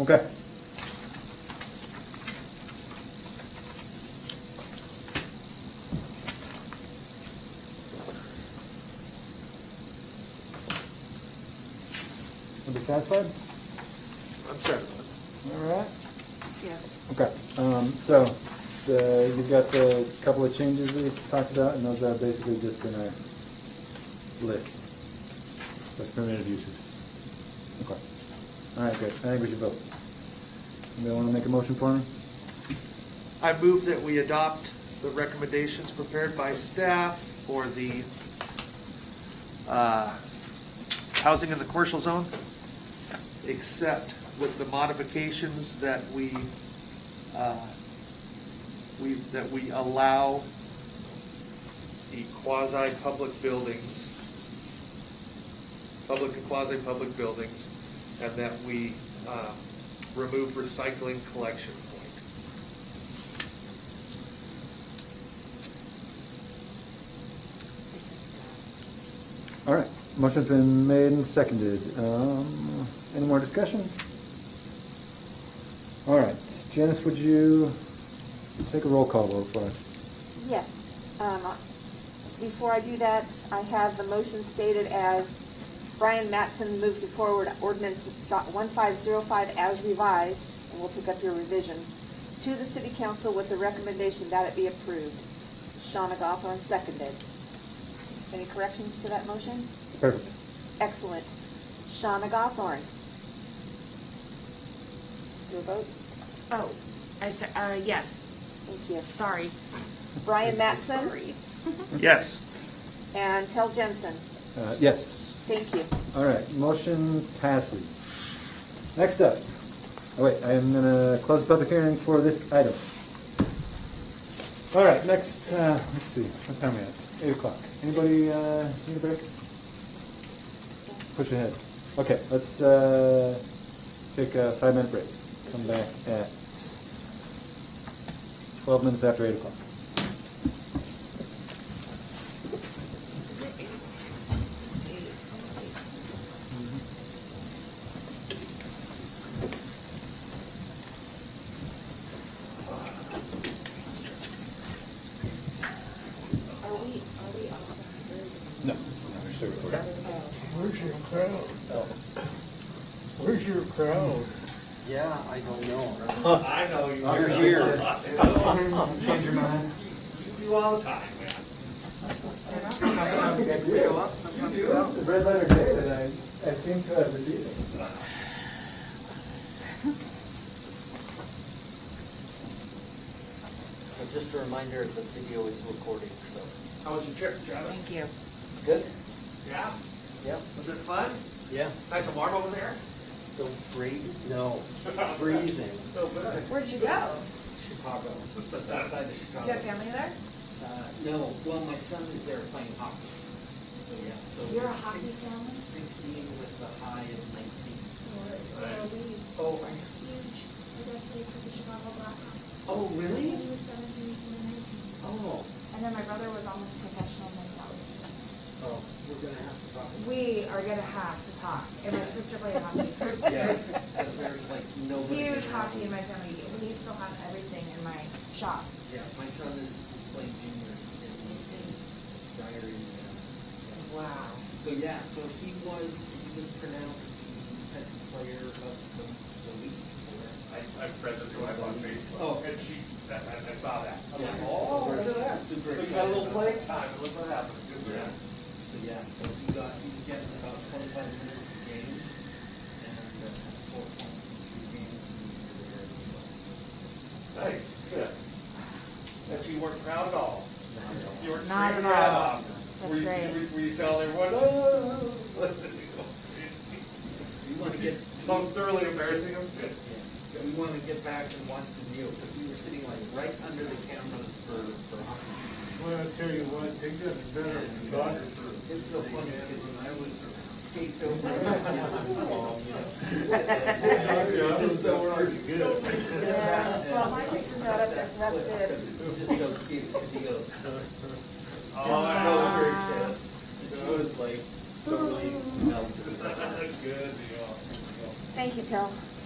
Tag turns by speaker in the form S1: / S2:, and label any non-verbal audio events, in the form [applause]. S1: Okay. Are you satisfied?
S2: I'm sorry.
S1: All right.
S3: Yes.
S1: Okay, um, so, the, you've got the couple of changes we talked about, and those are basically just in our list of permitted uses. Okay. All right, good, I think we should vote. Anybody wanna make a motion for me?
S2: I move that we adopt the recommendations prepared by staff for the uh, housing in the commercial zone, except with the modifications that we, uh, we, that we allow the quasi-public buildings, public and quasi-public buildings, and that we um, remove recycling collection point.
S1: All right, motion's been made and seconded. Um, any more discussion? All right, Janice, would you take a roll call vote for us?
S4: Yes. Um, Before I do that, I have the motion stated as Brian Mattson moved to forward ordinance dot 1505 as revised, and we'll pick up your revisions, to the city council with the recommendation that it be approved. Shawna Gothorn seconded. Any corrections to that motion?
S1: Perfect.
S4: Excellent. Shawna Gothorn. Your vote?
S3: Oh, I said, uh, yes.
S4: Thank you.
S3: Sorry.
S4: Brian Mattson?
S3: Sorry.
S2: Yes.
S4: And Tel Jensen.
S1: Uh, yes.
S4: Thank you.
S1: All right, motion passes. Next up, oh wait, I am gonna close the public hearing for this item. All right, next, uh, let's see, what time are we at? Eight o'clock. Anybody, uh, need a break? Push ahead. Okay, let's, uh, take a five-minute break. Come back at twelve minutes after eight o'clock.
S5: Are we, are we off the record?
S1: No.
S6: Where's your crowd?
S5: Oh.
S6: Where's your crowd?
S7: Yeah, I don't know.
S2: I know you.
S7: You're here.
S1: Change your mind.
S2: You do all the time, man.
S1: The red letter day that I, I seem to have received.
S7: So just a reminder, the video is recording, so.
S2: How was your trip, Travis?
S3: Thank you.
S7: Good?
S2: Yeah?
S7: Yep.
S2: Was it fun?
S7: Yeah.
S2: Nice and warm over there?
S7: So free? No, freezing.
S2: No, but.
S5: Where'd you go?
S7: Chicago.
S2: That's
S7: Just
S2: not-
S7: outside of
S5: Do you have
S7: Chicago.
S5: family there?
S7: Uh, No, well, my son is there playing hockey. So, yeah, so.
S5: You're a
S7: it's
S5: hockey
S7: six-
S5: fan?
S7: Sixteen with a high of nineteen.
S5: So we're, so we,
S7: Oh,
S5: are huge, we got paid for the Chicago Blackhawks.
S7: oh, really?
S5: He was seventeen, he was nineteen.
S7: Oh,
S5: And then my brother was almost professional in
S7: oh, we're gonna have to talk.
S5: We are gonna have to talk, and my sister played hockey.
S7: Yes, because there's like nobody.
S5: Huge
S7: there.
S5: hockey in my family, we still have everything in my shop.
S7: Yeah, my son is is playing junior and he's in diary. now.
S5: Wow.
S7: So yeah, so he was, he was pronounced the defensive player of the, the week.
S8: I, I've read the drive on Facebook.
S7: Oh.
S8: And she, I, I- I saw that. I'm
S7: Yeah.
S8: like, oh, look at that. So
S7: Super
S8: you got a little playing
S7: excited.
S8: time, and look what happened. Good for
S7: Yeah.
S8: him.
S7: So yeah, so he got, he was getting about twenty-five minutes a game and uh, four points in three games.
S8: Nice, good. That you weren't proud at all. You weren't
S3: Not
S8: screaming
S3: at all.
S8: around.
S3: That's
S8: Were you-
S3: great.
S8: Were you telling everyone, oh? [laughs]
S7: We want to get.
S8: So thoroughly embarrassing, I'm good.
S7: Yeah, we want to get back and watch the video, because we were sitting like right under the cameras for, for hockey.
S6: Well, I tell you what, they got it better
S8: [laughs]
S6: than God.
S7: It's so funny, because I would skate so far. And so we're like,
S4: Yeah, well, my picture's not up there, so that's good.
S7: Because it's just so cute, because he goes.
S8: Oh, I know,
S7: Shows her chest, and she was like, totally melted.
S2: [laughs]
S8: it's good. Good deal.
S4: Thank you, Tel.